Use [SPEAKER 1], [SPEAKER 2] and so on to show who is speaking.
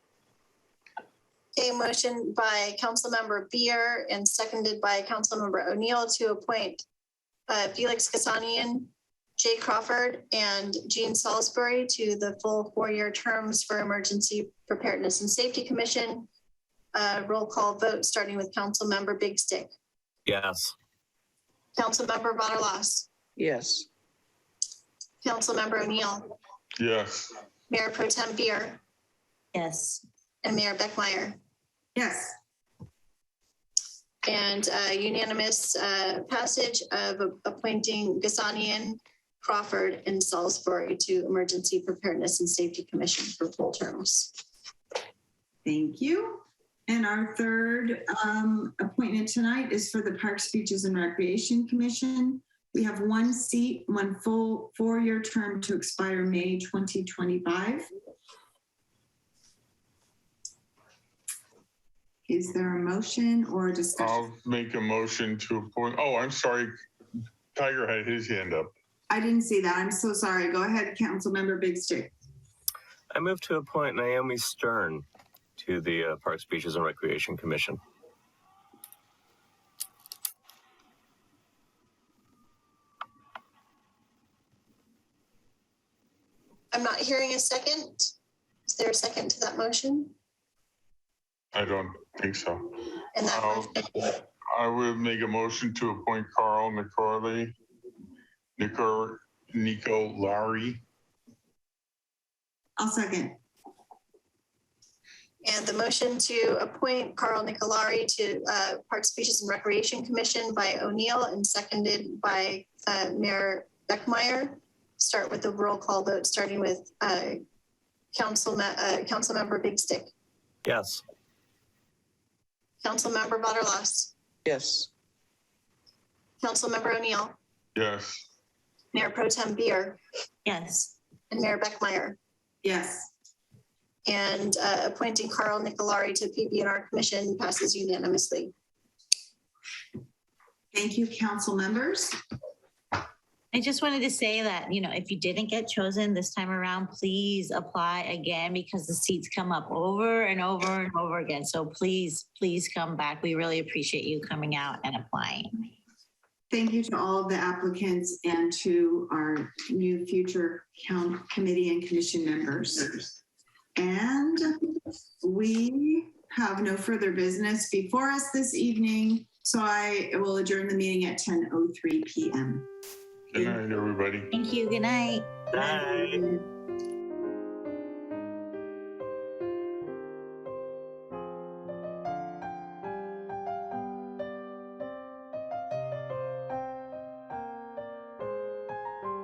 [SPEAKER 1] A motion by Councilmember Beer and seconded by Councilmember O'Neill to appoint uh, Felix Kasanian, Jay Crawford, and Gene Salisbury to the full four-year terms for Emergency Preparedness and Safety Commission. Uh, Roll call vote, starting with Councilmember Big Stick.
[SPEAKER 2] Yes.
[SPEAKER 1] Councilmember Butterlos.
[SPEAKER 3] yes,
[SPEAKER 1] Councilmember O'Neill.
[SPEAKER 4] yes,
[SPEAKER 1] Mayor Pro Tem Beer
[SPEAKER 5] Yes.
[SPEAKER 1] and Mayor Beckmeyer.
[SPEAKER 5] Yes.
[SPEAKER 1] And uh, unanimous uh, passage of a- appointing Gasanian, Crawford, and Salisbury to Emergency Preparedness and Safety Commission for full terms.
[SPEAKER 5] Thank you. And our third um, appointment tonight is for the Parks, Beaches, and Recreation Commission. We have one seat, one full four-year term to expire May 2025. Is there a motion or a discussion?
[SPEAKER 4] I'll make a motion to appoint, oh, I'm sorry. Tiger had his hand up.
[SPEAKER 5] I didn't see that. I'm so sorry. Go ahead, Councilmember Big Stick.
[SPEAKER 2] I move to appoint Naomi Stern to the uh, Parks, Beaches, and Recreation Commission.
[SPEAKER 1] I'm not hearing a second. Is there a second to that motion?
[SPEAKER 4] I don't think so.
[SPEAKER 1] And that
[SPEAKER 4] I'll-
[SPEAKER 1] motion-
[SPEAKER 4] I would make a motion to appoint Carl Nicorley, Nico, Nico Lowry.
[SPEAKER 5] I'll second.
[SPEAKER 1] and the motion to appoint Carl Nicolari to uh, Parks, Beaches, and Recreation Commission by O'Neill and seconded by uh, Mayor Beckmeyer. Start with the roll call vote, starting with uh, Council, uh, Councilmember Big Stick.
[SPEAKER 2] Yes.
[SPEAKER 1] Councilmember Butterlos,
[SPEAKER 3] yes,
[SPEAKER 1] Councilmember O'Neill,
[SPEAKER 4] Yes,
[SPEAKER 1] Mayor Pro Tem Beer,
[SPEAKER 6] yes,
[SPEAKER 1] and Mayor Beckmeyer,
[SPEAKER 5] Yes.
[SPEAKER 1] and uh, appointing Carl Nicolari to PBNR Commission passes unanimously.
[SPEAKER 5] Thank you, council members.
[SPEAKER 6] I just wanted to say that, you know, if you didn't get chosen this time around, please apply again because the seats come up over and over and over again. So please, please come back. We really appreciate you coming out and applying.
[SPEAKER 5] Thank you to all of the applicants and to our new future count committee and commission members. And we have no further business before us this evening, so I will adjourn the meeting at 10:03 PM.
[SPEAKER 4] good night, everybody.
[SPEAKER 6] Thank you. Good night.
[SPEAKER 2] Bye.
[SPEAKER 5] Good